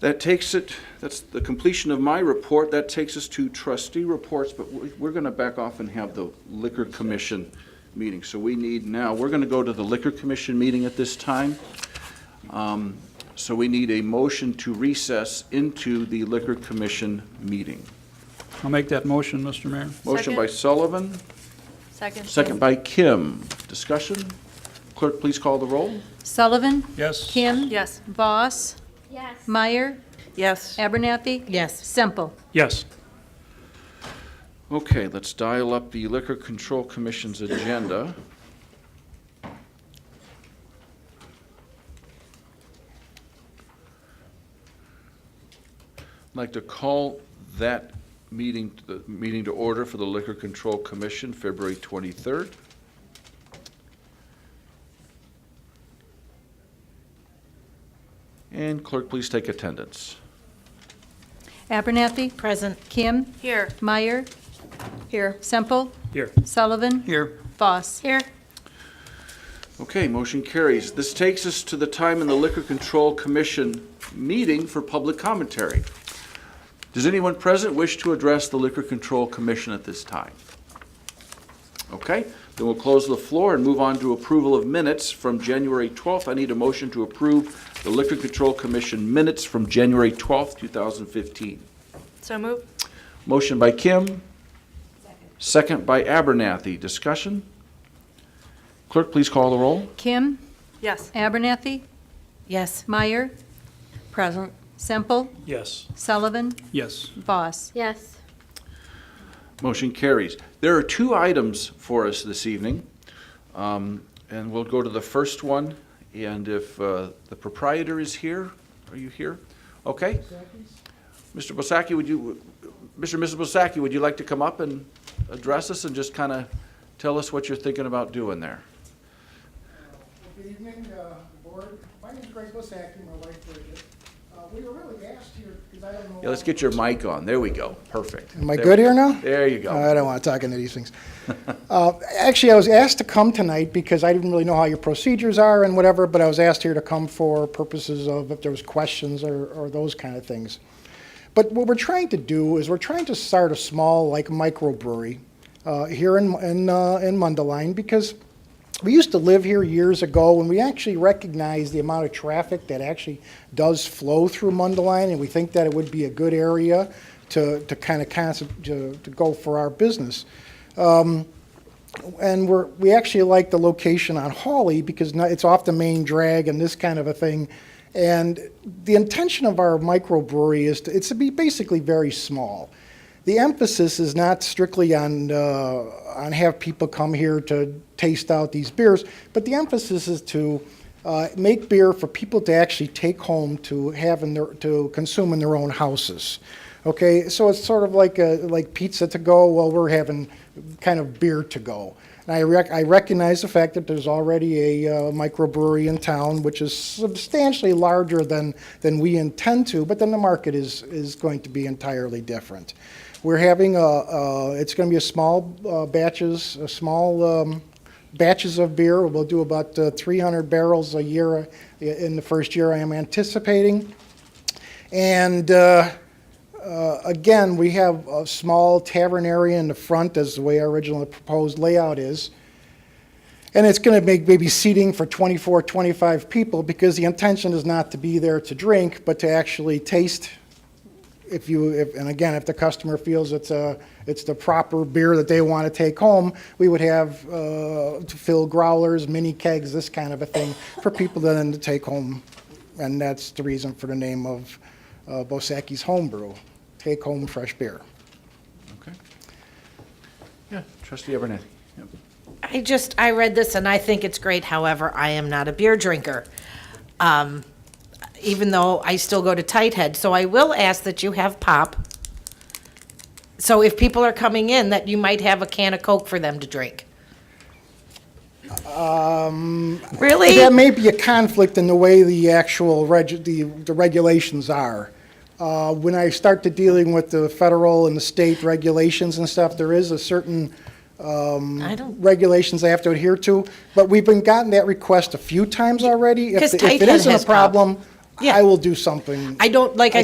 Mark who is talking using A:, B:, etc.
A: That takes it, that's the completion of my report. That takes us to trustee reports, but we- we're going to back off and have the Liquor Commission meeting. So we need now, we're going to go to the Liquor Commission meeting at this time. Um, So we need a motion to recess into the Liquor Commission meeting.
B: I'll make that motion, Mr. Mayor.
A: Motion by Sullivan,
C: Second.
A: second by Kim. Discussion? Clerk, please call the roll.
C: Sullivan?
B: Yes.
C: Kim?
D: Yes.
C: Voss? Yes. Meyer?
D: Yes.
C: Abernathy?
D: Yes.
C: Semple?
B: Yes.
A: Okay, let's dial up the Liquor Control Commission's agenda. I'd like to call that meeting, the meeting to order for the Liquor Control Commission, February 23rd. And clerk, please take attendance.
C: Abernathy?
D: Present.
C: Kim?
D: Here.
C: Meyer? Here. Semple?
B: Here.
C: Sullivan?
B: Here.
C: Voss?
D: Here.
A: Okay, motion carries. This takes us to the time in the Liquor Control Commission meeting for public commentary. Does anyone present wish to address the Liquor Control Commission at this time? Okay, then we'll close the floor and move on to approval of minutes from January 12th. I need a motion to approve the Liquor Control Commission minutes from January 12th, 2015.
D: So move.
A: Motion by Kim, second by Abernathy. Discussion? Clerk, please call the roll.
C: Kim?
D: Yes.
C: Abernathy?
D: Yes.
C: Meyer? Present. Semple?
B: Yes.
C: Sullivan?
B: Yes.
C: Voss?
E: Yes,
A: Motion carries. There are two items for us this evening, Um, and we'll go to the first one, and if uh, the proprietor is here, are you here? Okay. Mr. Bosaki, would you, Mr. and Mrs. Bosaki, would you like to come up and address us and just kind of tell us what you're thinking about doing there?
F: Good evening, uh, Board. My name's Greg Bosaki, my wife Bridget. Uh, We were really asked here, because I don't know.
A: Yeah, let's get your mic on. There we go. Perfect.
F: Am I good here now? Uh,
A: There you go.
F: I don't want to talk into these things. Uh, Actually, I was asked to come tonight because I didn't really know how your procedures are and whatever, but I was asked here to come for purposes of if there was questions or, or those kind of things. But what we're trying to do is we're trying to start a small, like, microbrewery uh, here in, in, uh, in Mundelein because we used to live here years ago and we actually recognize the amount of traffic that actually does flow through Mundelein and we think that it would be a good area to, to kind of concept, to, to go for our business and we're, we actually like the location on Hawley because no- it's off the main drag and this kind of a thing. And the intention of our microbrewery is to, it's to be basically very small. The emphasis is not strictly on, uh, on have people come here to taste out these beers, but the emphasis is to uh, make beer for people to actually take home to have in their, to consume in their own houses. Okay, so it's sort of like a, like pizza to go. Well, we're having kind of beer to go. And I, rec- I recognize the fact that there's already a uh, microbrewery in town, which is substantially larger than, than we intend to, but then the market is, is going to be entirely different. We're having a, a it's going to be a small uh, batches, a small um, batches of beer. We'll do about uh, 300 barrels a year uh, in the first year I am anticipating. And uh, uh, again, we have a small tavern area in the front, as the way our original proposed layout is. And it's going to make maybe seating for 24, 25 people, because the intention is not to be there to drink, but to actually taste if you, if, and again, if the customer feels it's a, it's the proper beer that they want to take home, we would have uh, to fill growlers, mini kegs, this kind of a thing for people to then to take home. And that's the reason for the name of uh, Bosaki's Homebrew, Take Home Fresh Beer.
A: Okay. Yeah, trustee Abernathy. Yep.
G: I just, I read this and I think it's great. However, I am not a beer drinker, um, even though I still go to Tight Head. So I will ask that you have pop. So if people are coming in, that you might have a can of Coke for them to drink. Um. Really?
F: That may be a conflict in the way the actual reg, the, the regulations are. Uh, when I start to dealing with the federal and the state regulations and stuff, there is a certain,
G: I don't.
F: regulations they have to adhere to, but we've been gotten that request a few times already. If-
G: 'Cause
F: If it
G: Titan
F: isn't a
G: has prob-
F: problem, Yeah.
H: I will do something.
F: I don't, like I